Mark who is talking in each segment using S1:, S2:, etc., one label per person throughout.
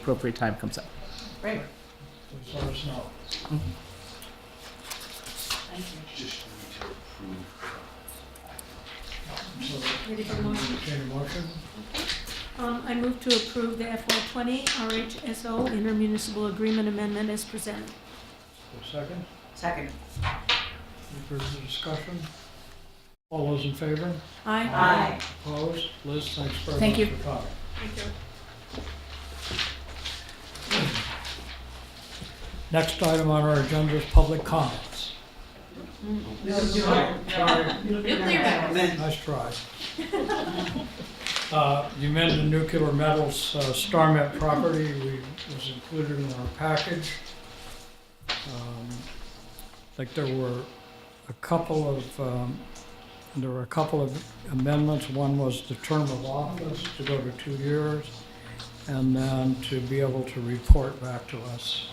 S1: appropriate time comes up.
S2: Great,
S3: Please let us know.
S2: thank you.
S4: Just need to approve.
S3: So,
S2: Ready for motion?
S3: entertain a motion?
S5: Um, I move to approve the FY twenty RHSO intermunicipal agreement amendment as presented.
S3: For a second,
S2: Second.
S3: any further discussion? All those in favor?
S5: Aye.
S2: Aye.
S3: Opposed? Liz, thanks very
S1: Thank
S3: much
S1: you.
S3: for coming.
S5: Thank you.
S3: Next item on our agenda is public comments.
S2: Nuclear weapons.
S3: Nice try. Uh, You mentioned nuclear metals, uh, StarMet property we- was included in our package. Um, I think there were a couple of, um, there were a couple of amendments. One was the term of office to go to two years, and then to be able to report back to us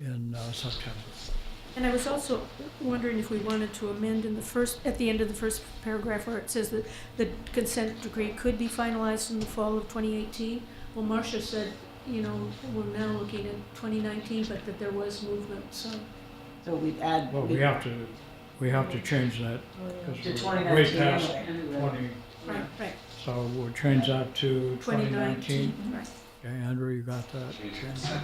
S3: uh, in uh, September.
S5: And I was also wondering if we wanted to amend in the first, at the end of the first paragraph where it says that the consent decree could be finalized in the fall of twenty eighteen. Well, Marcia said, you know, we're now looking at twenty nineteen, but that there was movement, so.
S6: So we'd add.
S3: Well, we have to, we have to change that.
S6: To
S3: because we're
S6: 2019
S3: way past
S6: anyway.
S3: 20,
S5: Right, right,
S3: so we'll change that to
S5: twenty nineteen,
S3: 2019.
S5: right.
S3: Okay, Andrew, you got that?
S4: Change consent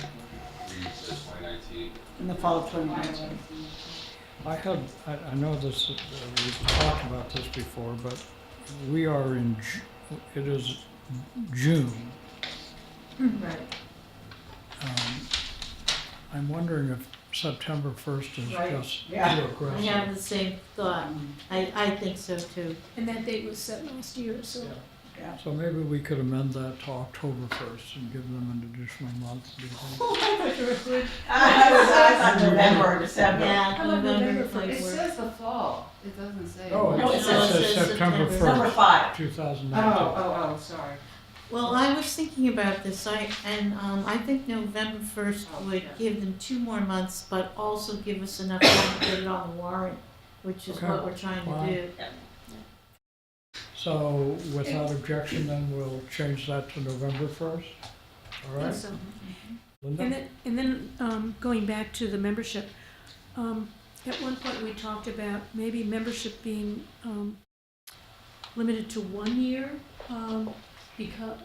S4: decree to 2019.
S6: In the fall of twenty nineteen.
S3: I had, I, I know this, uh, we've talked about this before, but we are in, Ju- it is June.
S2: Right.
S3: Um, I'm wondering if September 1st is
S6: Right,
S3: just too
S6: yeah.
S7: I
S3: aggressive.
S7: have the same thought. I, I think so too.
S5: And that date was set last year, so.
S3: So maybe we could amend that to October 1st and give them an additional month. do you think?
S6: I thought November or December.
S7: Yeah, November might
S8: It
S7: work.
S8: says the fall, it doesn't say.
S3: Oh,
S6: No,
S3: it
S6: it
S3: says
S7: says
S3: September
S7: September.
S6: Number
S3: first,
S6: five.
S3: two thousand
S8: Oh,
S3: nineteen.
S8: oh, oh, sorry.
S7: Well, I was thinking about this, I, and, um, I think November first would give them two more months, but also give us enough time to get it on the warrant, which is
S3: Okay.
S7: what we're trying
S3: Wow.
S7: to do.
S3: So without objection, then we'll change that to November first, all
S5: And
S3: right?
S5: so- And
S3: Linda?
S5: then, and then um, going back to the membership, um, at one point we talked about maybe membership being um, limited to one year um, because,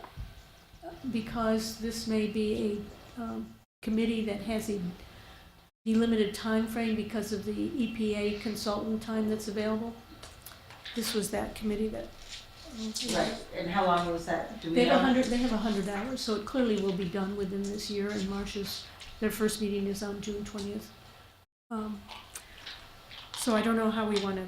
S5: because this may be a um, committee that has a delimited timeframe because of the EPA consultant time that's available. This was that committee that. um,
S6: Right, and how long was that? Do we
S5: They have a
S6: know?
S5: hundred, they have a hundred hours, so it clearly will be done within this year, and Marcia's, their first meeting is on June twentieth. Um, So I don't know how we wanna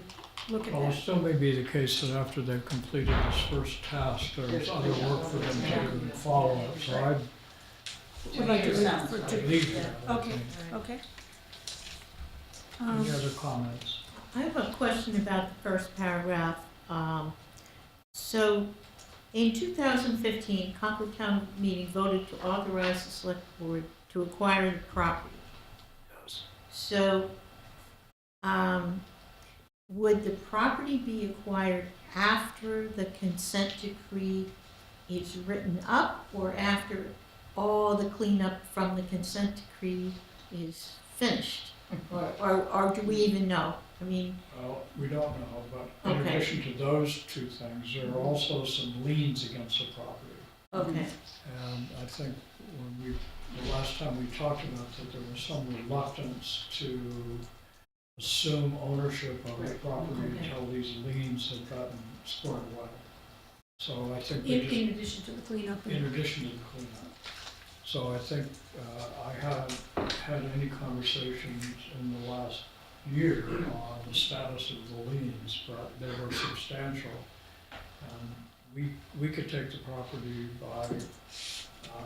S5: look at
S3: Well, it
S5: that.
S3: still may be the case that after they've completed this first task, there's
S6: There's
S3: other
S6: other
S3: work for them to do, follow up, so
S6: Right.
S3: I'd
S5: We'd like to
S6: Two years
S5: leave
S6: sounds
S5: for
S6: right.
S5: two-
S3: leave that. I
S5: Okay.
S3: think.
S5: Okay. Um,
S3: Any other comments?
S7: I have a question about the first paragraph. Um, So, in 2015, Concord Town Meeting voted to authorize the Select Board to acquire the property.
S3: Yes.
S7: So, um, would the property be acquired after the consent decree is written up or after all the cleanup from the consent decree is finished? Or, or, or do we even know? I mean,
S3: Well, we don't know, but in
S7: Okay.
S3: addition to those two things, there are also some liens against the property.
S7: okay.
S3: And I think when we, the last time we talked about that, there was some reluctance to assume ownership of the property
S7: okay.
S3: until these liens had gotten squared away. So I think
S5: In,
S3: we
S5: in
S3: just,
S5: addition to the cleanup. and-
S3: in addition to the cleanup. So I think, uh, I haven't had any conversations in the last year on the status of the liens, but they were substantial. And we, we could take the property by, uh,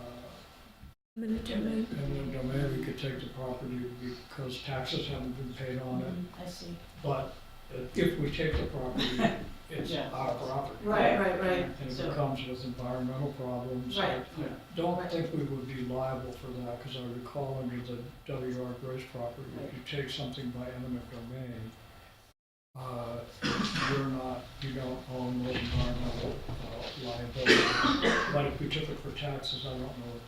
S5: minute to minute.
S3: eminent domain, we could take the property because taxes haven't been paid on it,
S7: I see.
S3: but if we take the property, it's
S7: Yeah.
S3: our property.
S7: Right, right, right.
S3: And if
S7: So-
S3: it comes with environmental problems, I
S7: Right.
S3: I don't think we would be liable for that, because I recall under the W.R. Grace property, if you take something by eminent domain, uh, you're not, you don't own those environmental uh, liability. But if we took it for taxes, I don't know what